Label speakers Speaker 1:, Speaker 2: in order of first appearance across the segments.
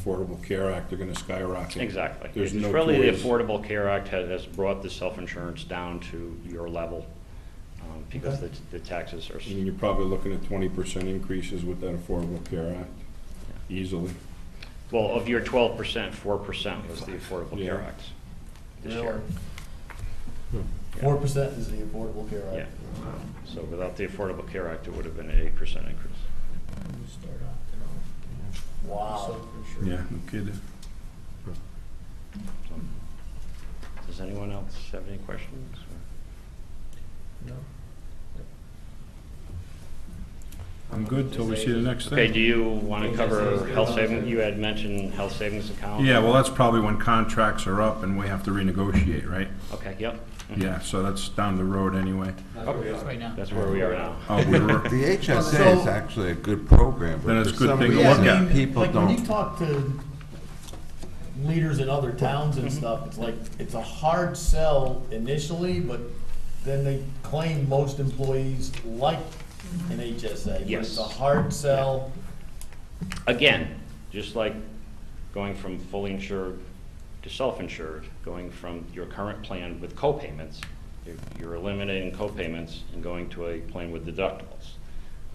Speaker 1: Affordable Care Act are gonna skyrocket.
Speaker 2: Exactly.
Speaker 1: There's
Speaker 2: It's
Speaker 1: no
Speaker 2: really the
Speaker 1: choice.
Speaker 2: Affordable Care Act has has brought the self-insurance down to your level um, because the the taxes are, s-
Speaker 1: And you're probably looking at twenty percent increases with that Affordable Care Act, easily.
Speaker 2: well, of your twelve percent, four percent was the Affordable Care
Speaker 1: Yeah.
Speaker 2: Act this year.
Speaker 3: Four percent is the Affordable Care
Speaker 2: Hmm. Yeah.
Speaker 3: Act.
Speaker 2: So without the Affordable Care Act, it would have been an eight percent increase.
Speaker 3: Wow.
Speaker 1: Yeah, no kidding.
Speaker 2: So, Does anyone else have any questions?
Speaker 1: I'm good till we see the next
Speaker 2: Okay,
Speaker 1: thing.
Speaker 2: do you want to cover health savings? You had mentioned health savings account.
Speaker 1: Yeah, well, that's probably when contracts are up and we have to renegotiate, right?
Speaker 2: Okay, yep.
Speaker 1: Yeah, so that's down the road anyway.
Speaker 2: That's where we are now.
Speaker 1: Oh, we were-
Speaker 4: The HSA is
Speaker 3: So-
Speaker 4: actually a good program,
Speaker 1: Then
Speaker 4: but
Speaker 1: it's
Speaker 4: for
Speaker 1: a good
Speaker 4: some
Speaker 1: thing to
Speaker 3: Yeah,
Speaker 1: look
Speaker 4: reason,
Speaker 1: at.
Speaker 3: I mean,
Speaker 4: people
Speaker 3: like, when you
Speaker 4: don't.
Speaker 3: talk to leaders in other towns
Speaker 2: Mm-hmm.
Speaker 3: and stuff, it's like, it's a hard sell initially, but then they claim most employees like an HSA. but
Speaker 2: Yes.
Speaker 3: It's a hard sell.
Speaker 2: Again, just like going from fully insured to self-insured, going from your current plan with co-payments, you're- you're eliminating co-payments and going to a plan with deductibles.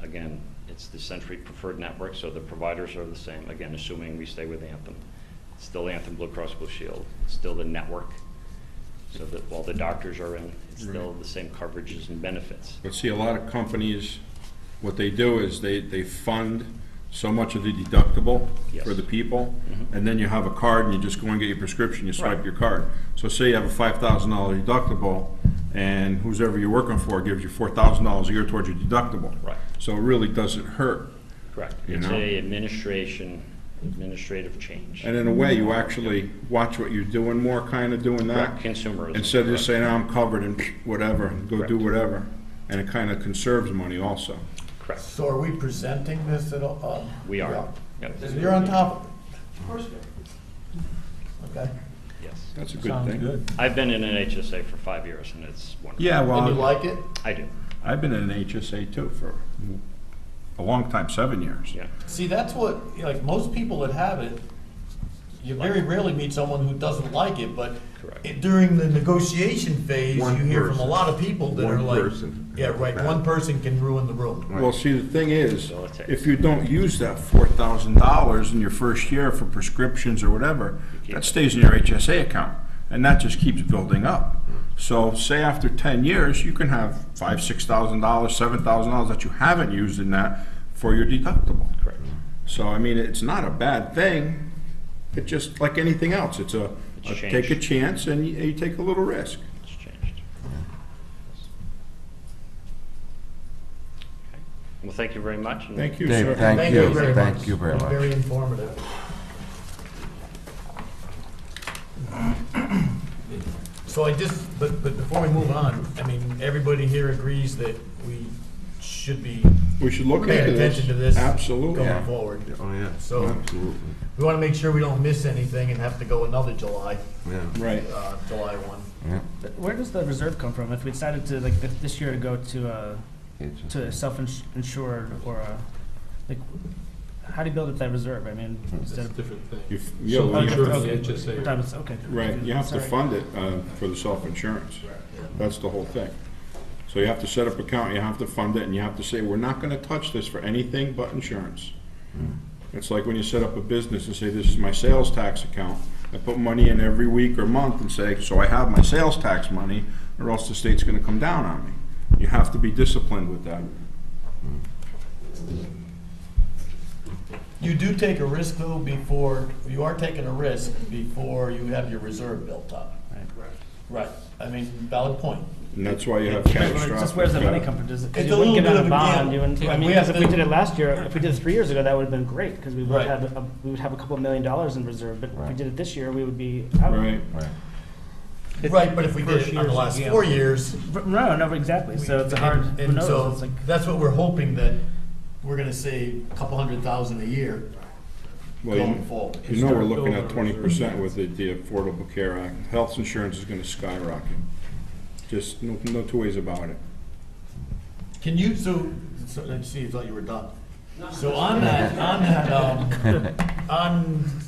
Speaker 2: Again, it's the Century Preferred Network, so the providers are the same, again, assuming we stay with Anthem. It's Still Anthem Blue Cross Blue Shield, it's still the network, so that while the doctors are in, it's still the same coverages and benefits.
Speaker 1: But see, a lot of companies, what they do is they, they fund so much of the deductible for
Speaker 2: Yes. Mm-hmm.
Speaker 1: the people, and then you have a card and you just go and get your prescription, you swipe
Speaker 2: Right.
Speaker 1: your card. So say you have a five thousand dollar deductible, and who's ever you're working for gives you four thousand dollars a year towards your deductible.
Speaker 2: Right.
Speaker 1: So it really doesn't hurt.
Speaker 2: Correct.
Speaker 1: You
Speaker 2: It's
Speaker 1: know?
Speaker 2: a administration, administrative change.
Speaker 1: And in a way, you actually watch what you're doing more, kind of doing that.
Speaker 2: Correct, consumerism,
Speaker 1: Instead of just
Speaker 2: correct.
Speaker 1: saying, "Oh, I'm covered and whatever, go do
Speaker 2: Correct.
Speaker 1: whatever. And it kind of conserves money also.
Speaker 2: Correct.
Speaker 3: So are we presenting this at all? Uh,
Speaker 2: We are. Yep.
Speaker 3: yeah. You're on top of it. Okay.
Speaker 2: Yes.
Speaker 1: That's a good thing.
Speaker 2: I've been in an HSA for five years, and it's wonderful.
Speaker 1: Yeah,
Speaker 3: And
Speaker 1: well.
Speaker 3: you like it?
Speaker 2: I do,
Speaker 1: I've been in an HSA too for a long time, seven years.
Speaker 2: yeah.
Speaker 3: See, that's what, like, most people that have it, you very rarely meet someone who doesn't like it, but
Speaker 2: Correct.
Speaker 3: it- during the negotiation phase, you
Speaker 4: One
Speaker 3: hear from a
Speaker 4: person.
Speaker 3: lot of people that are
Speaker 4: One
Speaker 3: like,
Speaker 4: person.
Speaker 3: yeah, right, one person can ruin the room.
Speaker 1: Well, see, the thing is,
Speaker 2: So it's-
Speaker 1: if you don't use that four thousand dollars in your first year for prescriptions or whatever,
Speaker 2: keep
Speaker 1: that
Speaker 2: it.
Speaker 1: stays in your HSA account, and that just keeps building up. So say after ten years, you can have five, six thousand dollars, seven thousand dollars that you haven't used in that for your deductible.
Speaker 2: Correct.
Speaker 1: So, I mean, it's not a bad thing, it just, like anything else, it's a,
Speaker 2: It's
Speaker 1: a-
Speaker 2: a
Speaker 1: take a
Speaker 2: change.
Speaker 1: chance and you- you take a little risk.
Speaker 2: It's changed. Okay. Well, thank you very much. and
Speaker 1: Thank you, sir.
Speaker 4: Dave, thank you,
Speaker 3: very
Speaker 4: thank
Speaker 3: much.
Speaker 4: you very much.
Speaker 3: Very informative. So I just, but, but before we move on, I mean, everybody here agrees that we should be
Speaker 1: We should look
Speaker 3: paying
Speaker 1: into this.
Speaker 3: attention to this
Speaker 1: Absolutely.
Speaker 3: going
Speaker 4: Yeah.
Speaker 3: forward.
Speaker 4: Oh, yeah,
Speaker 3: So-
Speaker 4: absolutely,
Speaker 3: We want to make sure we don't miss anything and have to go another July,
Speaker 4: yeah.
Speaker 1: Right.
Speaker 3: uh, July one.
Speaker 4: yeah.
Speaker 5: Where does the reserve come from? If we decided to, like, th- this year to go to, uh,
Speaker 4: It's-
Speaker 5: to self-insured or, uh, like, how do you build up that reserve? I mean,
Speaker 1: Hmm.
Speaker 5: instead of.
Speaker 6: different thing.
Speaker 1: You f- yeah,
Speaker 5: Oh,
Speaker 1: well, you
Speaker 5: different-
Speaker 1: have-
Speaker 6: the
Speaker 5: okay.
Speaker 6: HSA.
Speaker 5: We're talking about- Okay.
Speaker 1: Right, you have to
Speaker 5: Sorry.
Speaker 1: fund it uh, for the self-insurance. That's the whole thing. So you have to set up account, you have to fund it, and you have to say, we're not gonna touch this for anything but insurance. It's like when you set up a business and say, this is my sales tax account. I put money in every week or month and say, so I have my sales tax money, or else the state's gonna come down on me. You have to be disciplined with that.
Speaker 3: You do take a risk though before, you are taking a risk before you have your reserve built up. Right, I mean, valid point.
Speaker 1: And that's why you have catastrophic.
Speaker 5: Just where's the money come from? Does it, 'cause
Speaker 3: It's
Speaker 5: you
Speaker 3: a
Speaker 5: wouldn't
Speaker 3: little bit
Speaker 5: get on
Speaker 3: of
Speaker 5: a
Speaker 3: a
Speaker 5: bond,
Speaker 3: gamble.
Speaker 5: you wouldn't, I
Speaker 3: Right,
Speaker 5: mean,
Speaker 3: we
Speaker 5: 'cause
Speaker 3: have
Speaker 5: if we
Speaker 3: to-
Speaker 5: did it last year, if we did it three years ago, that would've been great, because we would've
Speaker 3: Right.
Speaker 5: had, a- we would have a couple million dollars in reserve, but if we
Speaker 4: Right.
Speaker 5: did it this year, we would be out.
Speaker 1: Right.
Speaker 4: Right.
Speaker 3: Right, but if we did it in the last four years.
Speaker 5: R- No, no, exactly, so it's a
Speaker 3: and-
Speaker 5: hard, who
Speaker 3: and
Speaker 5: knows,
Speaker 3: so
Speaker 5: it's like,
Speaker 3: That's what we're hoping that we're gonna save a couple hundred thousand a year
Speaker 1: Well, you-
Speaker 3: going forward.
Speaker 1: You know, we're looking at twenty percent with the, the Affordable Care Act. Health insurance is gonna skyrocket. Just no, no two ways about it.
Speaker 3: Can you, so, so, let's see, I thought you were done. So on that, on that, um, on,